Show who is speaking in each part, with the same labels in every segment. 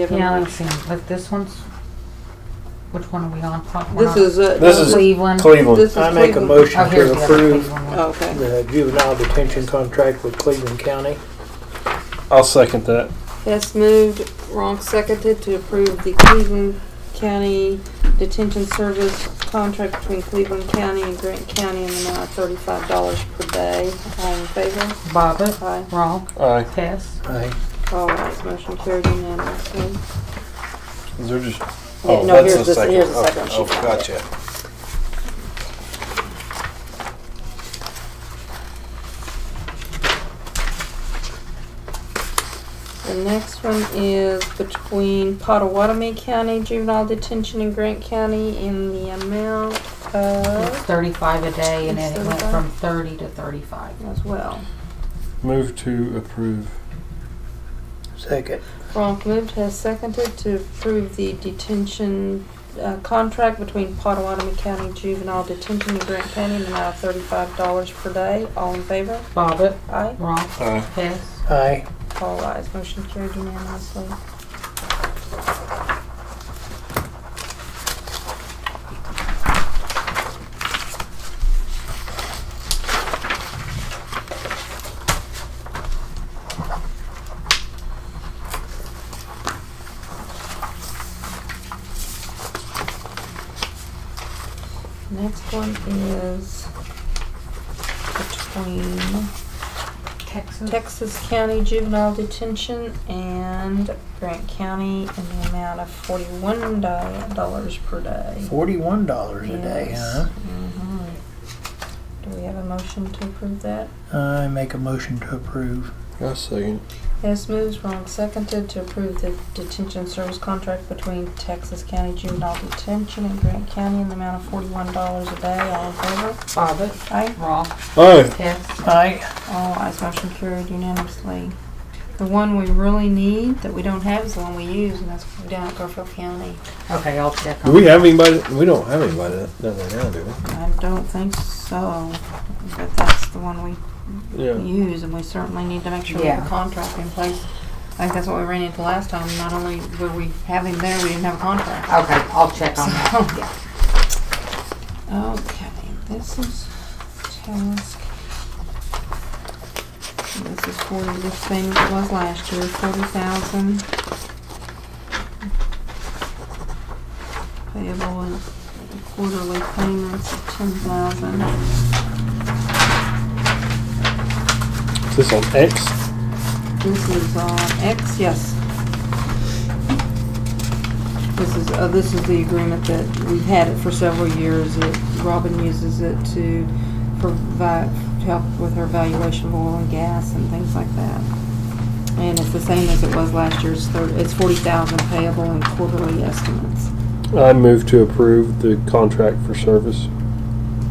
Speaker 1: Give
Speaker 2: Yeah,
Speaker 1: them-
Speaker 2: let's see, like this one's, which one are we on? Front- we're
Speaker 1: This
Speaker 2: on
Speaker 1: is uh, a.
Speaker 3: This is-
Speaker 2: Cleveland.
Speaker 3: Cleveland.
Speaker 1: This is
Speaker 4: I make a
Speaker 1: Cleveland. Oh,
Speaker 2: Oh,
Speaker 4: motion
Speaker 2: here's
Speaker 4: to
Speaker 2: the other
Speaker 4: approve
Speaker 2: Cleveland one.
Speaker 1: Okay.
Speaker 4: the juvenile detention contract with Cleveland County.
Speaker 3: I'll second that.
Speaker 1: Hess moved, Ronk seconded to approve the Cleveland County Detention Service contract between Cleveland County and Grant County in the amount of thirty-five dollars per day. All in favor?
Speaker 2: Bobbit,
Speaker 1: Aye.
Speaker 2: Ronk,
Speaker 3: Aye.
Speaker 2: Hess.
Speaker 4: Aye.
Speaker 1: All right, motion carried unanimously.
Speaker 3: Is there just?
Speaker 1: Yeah,
Speaker 3: Oh,
Speaker 1: no,
Speaker 3: that's
Speaker 1: here's
Speaker 3: the
Speaker 1: this- here's the
Speaker 3: Oh,
Speaker 1: second one she
Speaker 3: Oh,
Speaker 1: found.
Speaker 3: gotcha.
Speaker 1: The next one is between Pottawatomie County Juvenile Detention and Grant County in the amount
Speaker 2: It's
Speaker 1: of,
Speaker 2: thirty-five a day and
Speaker 1: It's
Speaker 2: then it went
Speaker 1: 35?
Speaker 2: from thirty to thirty-five.
Speaker 1: as well.
Speaker 3: Move to approve.
Speaker 4: Second.
Speaker 1: Ronk moved, has seconded to approve the detention uh, contract between Pottawatomie County Juvenile Detention and Grant County in the amount of thirty-five dollars per day. All in favor?
Speaker 2: Bobbit,
Speaker 1: Aye.
Speaker 2: Ronk,
Speaker 3: Aye.
Speaker 2: Hess.
Speaker 4: Aye.
Speaker 1: All ayes. Motion carried unanimously. Next one is between
Speaker 2: Texas.
Speaker 1: Texas County Juvenile Detention and Grant County in the amount of forty-one dollars per day.
Speaker 4: Forty-one dollars a day,
Speaker 1: Yes.
Speaker 4: huh?
Speaker 1: Mhm. Do we have a motion to approve that?
Speaker 4: I make a motion to approve.
Speaker 3: I second.
Speaker 1: Hess moves, wrong seconded to approve the detention service contract between Texas County Juvenile Detention and Grant County in the amount of forty-one dollars a day. All in favor?
Speaker 2: Bobbit,
Speaker 1: Aye.
Speaker 2: Ronk,
Speaker 3: Aye.
Speaker 2: Hess.
Speaker 4: Aye.
Speaker 1: All ayes, motion carried unanimously. The one we really need that we don't have is the one we use, and that's down at Garfield County.
Speaker 2: Okay, I'll check
Speaker 3: Do
Speaker 2: on
Speaker 3: we
Speaker 2: it.
Speaker 3: have anybody? We don't have anybody that does that now, do
Speaker 1: I don't think so, but that's the one we
Speaker 3: we? Yeah.
Speaker 1: use, and we certainly need to make sure we have
Speaker 2: Yeah.
Speaker 1: a contract in place. I think that's what we ran into last time, not only were we having there, we didn't have a contract.
Speaker 2: Okay, I'll check on that.
Speaker 1: Okay, this is task. This is forty, the same as it was last year, forty thousand. Payable in quarterly payments of ten thousand.
Speaker 3: Is this on X?
Speaker 1: This is on X, yes. This is, uh, this is the agreement that we've had it for several years. It- Robin uses it to provide, to help with her valuation of oil and gas and things like that. And it's the same as it was last year. It's thir- It's forty thousand payable in quarterly estimates.
Speaker 3: I move to approve the contract for service.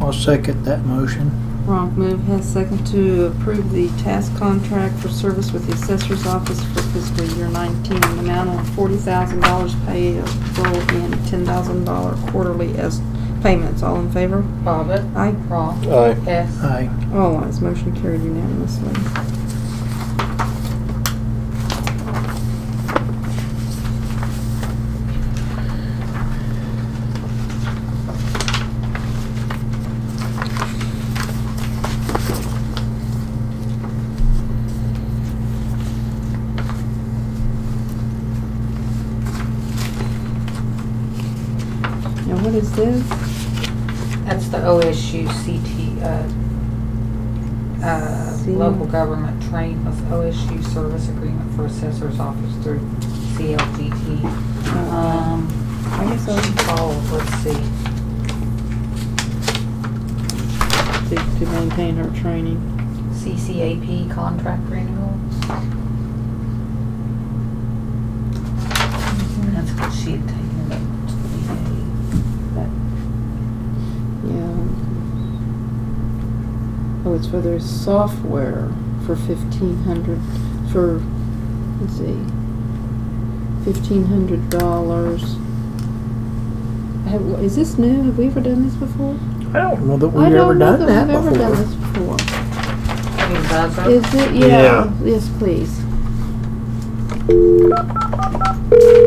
Speaker 4: I'll second that motion.
Speaker 1: Ronk move has second to approve the task contract for service with the assessor's office for fiscal year nineteen, an amount of forty thousand dollars payable in ten thousand dollar quarterly as payments. All in favor?
Speaker 2: Bobbit,
Speaker 1: Aye.
Speaker 2: Ronk,
Speaker 3: Aye.
Speaker 2: Hess.
Speaker 4: Aye.
Speaker 1: All ayes. Oh, Motion carried unanimously. Now, what is this?
Speaker 2: That's the OSU CT, uh, uh,
Speaker 1: See.
Speaker 2: local government train with OSU service agreement for assessor's office through CLGT.
Speaker 1: Uh,
Speaker 2: Um,
Speaker 1: I guess I was
Speaker 2: oh, let's see.
Speaker 1: to, to maintain her training.
Speaker 2: CCAP contract renewal. That's what she had taken, but
Speaker 1: Yeah. Oh, it's for their software for fifteen hundred, for, let's see, fifteen hundred dollars. Is this new? Have we ever done this before?
Speaker 4: I don't know that we've ever done
Speaker 1: I
Speaker 4: that
Speaker 1: don't know that we've ever done
Speaker 4: before.
Speaker 1: this before.
Speaker 2: I mean, does it?
Speaker 1: Is it, yeah, yes, please.